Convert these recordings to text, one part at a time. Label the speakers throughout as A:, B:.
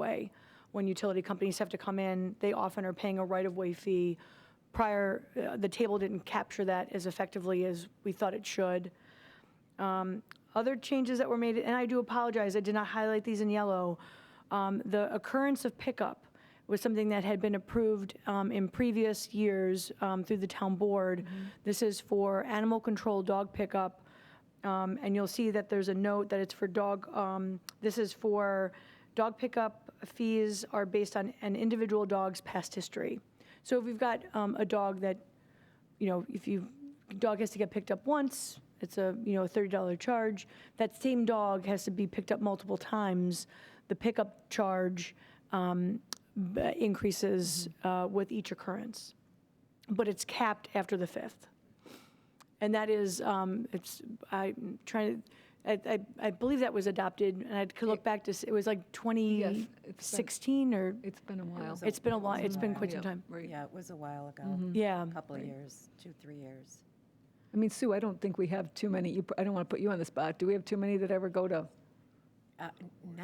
A: right-of-way. When utility companies have to come in, they often are paying a right-of-way fee. Prior, uh, the table didn't capture that as effectively as we thought it should. Um, Other changes that were made, and I do apologize, I did not highlight these in yellow. Um, The occurrence of pickup was something that had been approved um, in previous years um, through the town board. This is for animal control dog pickup. Um, And you'll see that there's a note that it's for dog, um, this is for dog pickup fees are based on an individual dog's past history. So if we've got um, a dog that, you know, if you, dog has to get picked up once, it's a, you know, a $30 charge. That same dog has to be picked up multiple times. The pickup charge um, b- increases uh, with each occurrence, but it's capped after the fifth. And that is, um, it's, I'm trying, to. I, I- I believe that was adopted, and I could look back to, s- it was like 2016 or,
B: It's been a while.
A: it's been a lot, it's been quite some
B: Yeah,
A: time.
B: right.
C: Yeah, it was a while ago,
B: Mm-hmm.
A: Yeah.
C: a couple of years, two, three years.
B: I mean, Sue, I don't think we have too many, you- I don't want to put you on the spot. Do we have too many that ever go to?
C: Uh,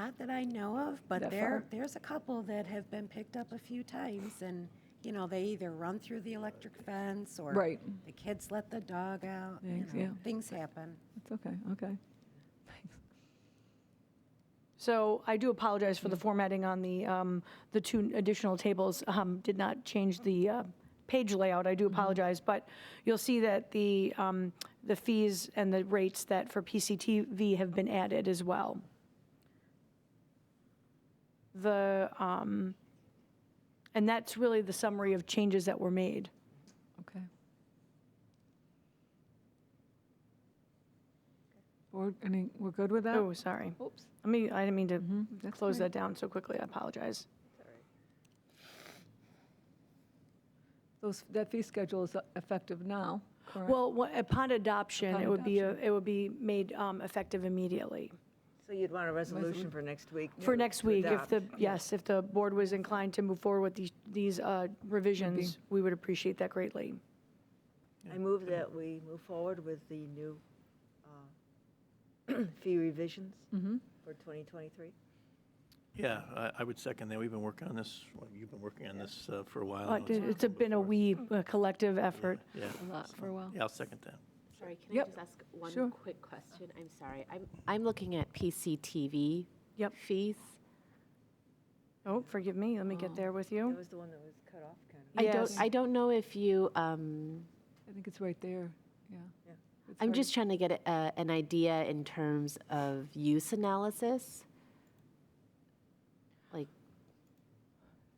C: Not that I know of, but
B: That
C: there,
B: far?
C: there's a couple that have been picked up a few times, and, you know, they either run through the electric fence, or
B: Right.
C: the kids let the dog out, you
B: Thanks,
C: know,
B: yeah.
C: things happen.
B: It's okay, okay.
A: So I do apologize
B: Mm.
A: for the formatting on the, um, the two additional tables. Um, Did not change the uh, page layout, I
B: Mm-hmm.
A: do apologize. But you'll see that the, um, the fees and the rates that for PCTV have been added as well. The, um, and that's really the summary of changes that were made.
B: Okay. We're, I mean, we're good with that?
A: Oh, sorry.
B: Oops.
A: I mean, I didn't mean to
B: Mm-hmm. that's
A: close
B: fine.
A: that down so quickly, I apologize.
B: Those, that fee schedule is effective now, correct?
A: Well, wha- upon adoption,
B: Upon
A: it would be, a- it would be made um, effective immediately.
D: So you'd want a resolution for next week?
A: For
D: to-
A: next
D: to
A: week, if the,
D: adopt.
A: yes, if the board was inclined to move forward with these- these uh, revisions, we would appreciate that greatly.
D: I move that we move forward with the new uh, fee revisions
B: Mm-hmm.
D: for 2023.
E: Yeah, I, I would second that. We've been working on this, well, you've been working on this uh, for a while.
A: But
E: and
A: It's a- been a wee uh, collective effort.
E: Yeah,
B: A lot for a while.
E: yeah, I'll second that.
F: Sorry, can I
B: Yep.
F: just ask
B: Sure.
F: one quick question? I'm sorry. I'm, I'm looking at PCTV
A: Yep.
F: fees.
A: Oh, forgive me, let me get there with you.
D: That was the one that was cut off, kind of.
F: I don't,
A: Yes.
F: I don't know if you, um,
B: I think it's right there, yeah.
D: Yeah.
B: It's
F: I'm
B: hard-
F: just trying to get a- a- an idea in terms of use analysis. Like,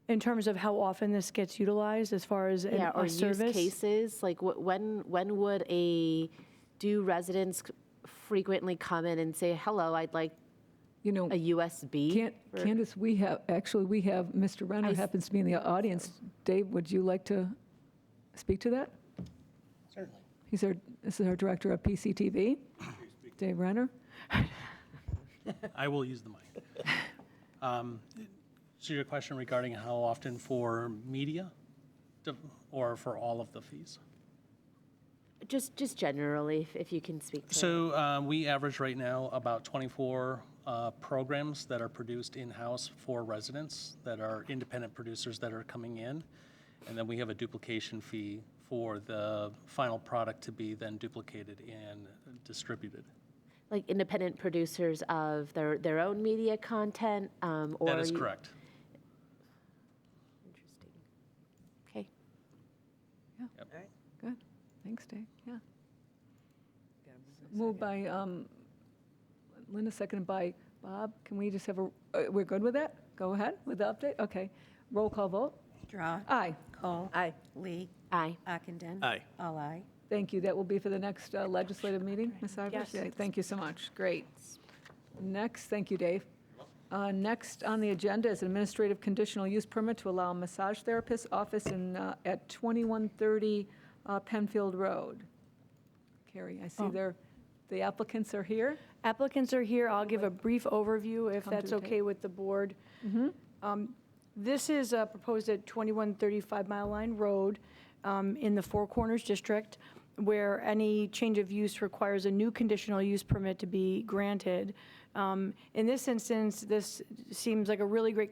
A: In terms of how often this gets utilized as far as an-
F: yeah, or
A: a
F: use
A: service?
F: cases, like wh- when, when would a, do residents c- frequently come in and say, hello, I'd like
B: You know,
F: a USB?
B: Can-
F: for-"
B: Candace, we have, actually, we have, Mr. Renner
F: s-
B: happens to be in the audience. Dave, would you like to speak to that?
G: Certainly.
B: He's our, this is our director of PCTV, Dave Renner.
G: I will use the mic. Um, So your question regarding how often for media to- or for all of the fees?
F: Just, just generally, if- if you can speak to it.
G: So um, we average right now about 24 uh, programs that are produced in-house for residents that are independent producers that are coming in. And then we have a duplication fee for the final product to be then duplicated and distributed.
F: like independent producers of their, their own media content? um, or
G: That is
F: you-
G: correct.
F: Interesting. Okay.
G: Yep.
B: Good, thanks, Dave, yeah. Moved by um, Linda, seconded by Bob. Can we just have a, uh, we're good with that? Go ahead with the update, okay. Roll call vote?
C: Draw,
B: Aye,
C: Cole.
D: Aye.
C: Lee.
F: Aye.
C: Ockenden.
E: Aye.
C: All aye.
B: thank you, that will be for the next uh, legislative meeting, Ms. Ivors?
A: Yes.
B: Yeah, Thank you so much, great. Next, thank you, Dave. Uh, Next on the agenda is administrative conditional use permit to allow massage therapist office in, uh, at 2130 uh, Penfield Road. Carrie, I see there, the applicants are here.
A: Applicants are here. I'll give a brief overview if
B: Come to
A: that's
B: the Mm-hmm. tape.
A: okay with the board. Um, This is uh, proposed at 2135 Mile Line Road um, in the Four Corners District, where any change of use requires a new conditional use permit to be granted. Um, In this instance, this seems like a really great